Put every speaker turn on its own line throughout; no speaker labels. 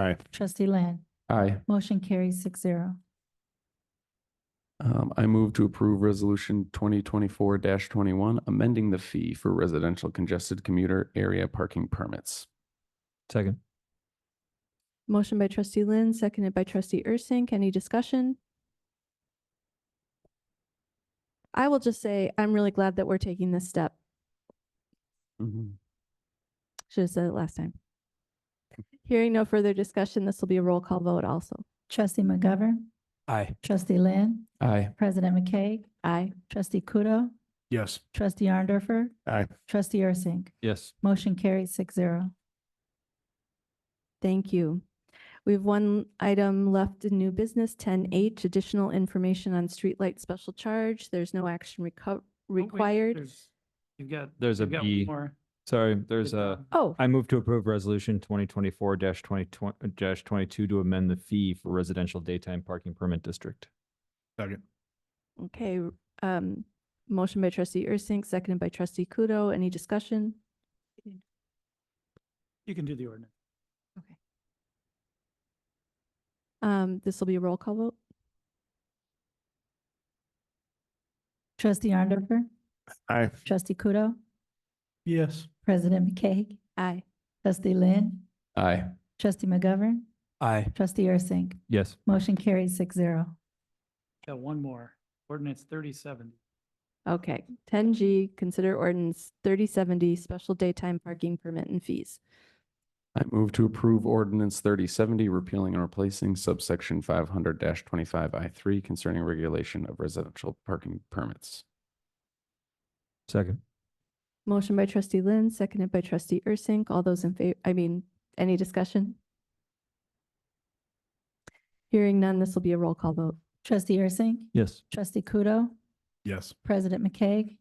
Aye.
Trustee Land.
Aye.
Motion carries six zero.
Um, I move to approve resolution twenty twenty-four twenty-one, amending the fee for residential congested commuter area parking permits.
Second.
Motion by trustee Lynn, seconded by trustee Ursink. Any discussion? I will just say, I'm really glad that we're taking this step.
Mm-hmm.
Should have said it last time. Hearing no further discussion, this will be a roll call vote also.
Trustee McGovern.
Aye.
Trustee Land.
Aye.
President McKay.
Aye.
Trustee Kudo.
Yes.
Trustee Arndorfer.
Aye.
Trustee Ursink.
Yes.
Motion carries six zero.
Thank you. We have one item left in new business, ten H, additional information on streetlight special charge. There's no action reco- required.
You've got.
There's a
you've got
B.
one more.
Sorry, there's a,
Oh,
I move to approve resolution twenty twenty-four dash twenty, dash twenty-two to amend the fee for residential daytime parking permit district.
Second.
okay. Um, motion by trustee Ursink, seconded by trustee Kudo. Any discussion?
You can do the ordinance.
Um, this will be a roll call vote.
Trustee Arndorfer.
Aye.
Trustee Kudo.
Yes.
President McKay.
Aye.
Trustee Lynn.
Aye.
Trustee McGovern.
Aye.
Trustee Ursink.
Yes.
Motion carries six zero.
Got one more. Ordinance thirty-seven.
Okay, ten G, consider ordinance thirty seventy, special daytime parking permit and fees.
I move to approve ordinance thirty seventy, repealing and replacing subsection five hundred twenty-five I three concerning regulation of residential parking permits.
Second.
Motion by trustee Lynn, seconded by trustee Ursink. All those in favor, I mean, any discussion? Hearing none, this will be a roll call vote.
Trustee Ursink.
Yes.
Trustee Kudo.
Yes.
President McKay.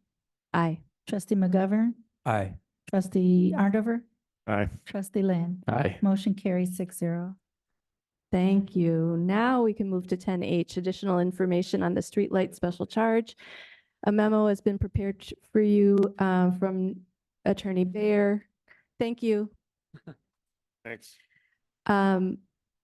Aye.
Trustee McGovern.
Aye.
Trustee Arndover.
Aye.
Trustee Land.
Aye.
Motion carries six zero.
Thank you. Now we can move to ten H, additional information on the streetlight special charge. A memo has been prepared ch- for you uh, from Attorney Bayer. Thank you.
Thanks.
um,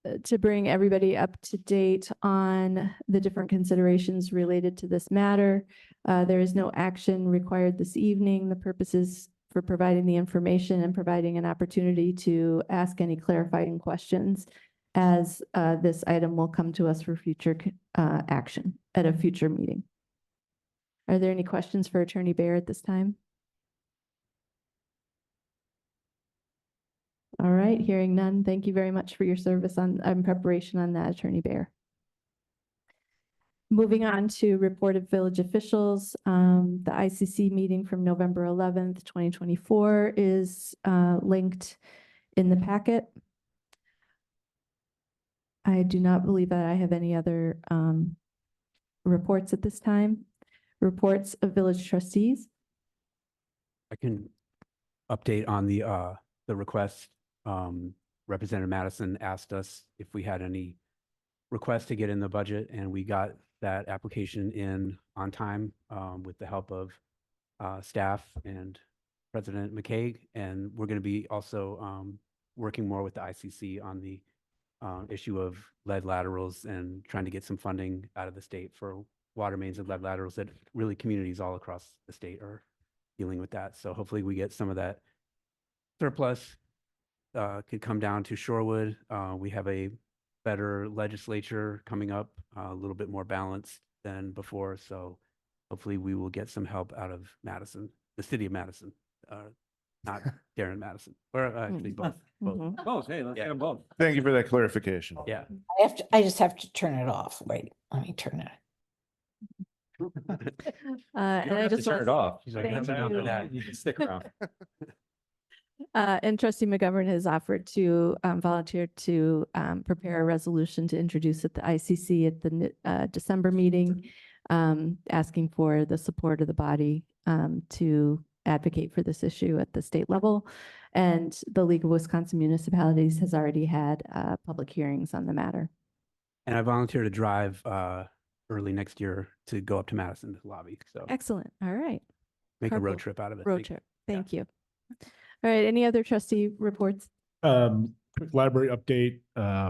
uh, to bring everybody up to date on the different considerations related to this matter. Uh, there is no action required this evening. The purpose is for providing the information and providing an opportunity to ask any clarifying questions as, uh, this item will come to us for future, c- uh, action at a future meeting. Are there any questions for Attorney Bayer at this time? All right, hearing none. Thank you very much for your service on, on preparation on that, Attorney Bear. Moving on to report of village officials, um, the ICC meeting from November eleventh, twenty twenty-four is, uh, linked in the packet. I do not believe that I have any other, um, reports at this time. Reports of village trustees.
I can update on the, uh, the request. Um, Representative Madison asked us if we had any requests to get in the budget and we got that application in on time, um, with the help of, uh, staff and President McCaig. And we're going to be also, um, working more with the ICC on the, uh, issue of lead laterals and trying to get some funding out of the state for water mains and lead laterals that really communities all across the state are dealing with that. So hopefully we get some of that surplus uh, could come down to Shorewood. Uh, we have a better legislature coming up, uh, a little bit more balanced than before. So hopefully we will get some help out of Madison, the city of Madison, uh, not Darren Madison, or uh, actually both. both.
Mm-hmm.
Both, hey, let's
Yeah.
get them both.
Thank you for that clarification.
Yeah.
I have to, I just have to turn it off. Wait, let me turn it.
Uh, and I just want-
off.
She's like,
Thank
"That's enough of
you.
that."
You can stick around.
Uh, and trustee McGovern has offered to, um, volunteer to, um, prepare a resolution to introduce at the ICC at the, n- uh, December meeting, um, asking for the support of the body, um, to advocate for this issue at the state level. And the League of Wisconsin Municipalities has already had, uh, public hearings on the matter.
And I volunteer to drive uh, early next year to go up to Madison to lobby. So
Excellent. All right.
make a
carpool.
road trip out of it.
Road
Thank-
trip. Thank you. All right. Any other trustee reports?
Um,
quick library update, uh,